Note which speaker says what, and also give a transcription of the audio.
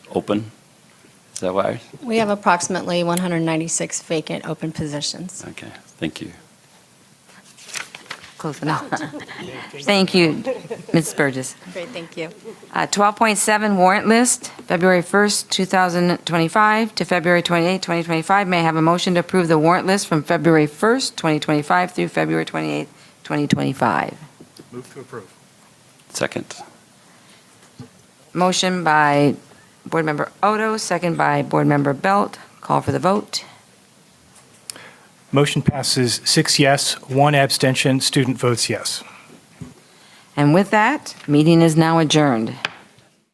Speaker 1: open? Is that why?
Speaker 2: We have approximately 196 vacant open positions.
Speaker 1: Okay, thank you.
Speaker 3: Close enough. Thank you, Ms. Burgess.
Speaker 2: Great, thank you.
Speaker 3: Uh, 12.7 warrant list, February 1st, 2025 to February 28th, 2025. May I have a motion to approve the warrant list from February 1st, 2025 through February 28th, 2025?
Speaker 4: Move to approve.
Speaker 1: Second.
Speaker 3: Motion by Board Member Odo, second by Board Member Belt. Call for the vote.
Speaker 4: Motion passes six yes, one abstention. Student votes yes.
Speaker 3: And with that, meeting is now adjourned.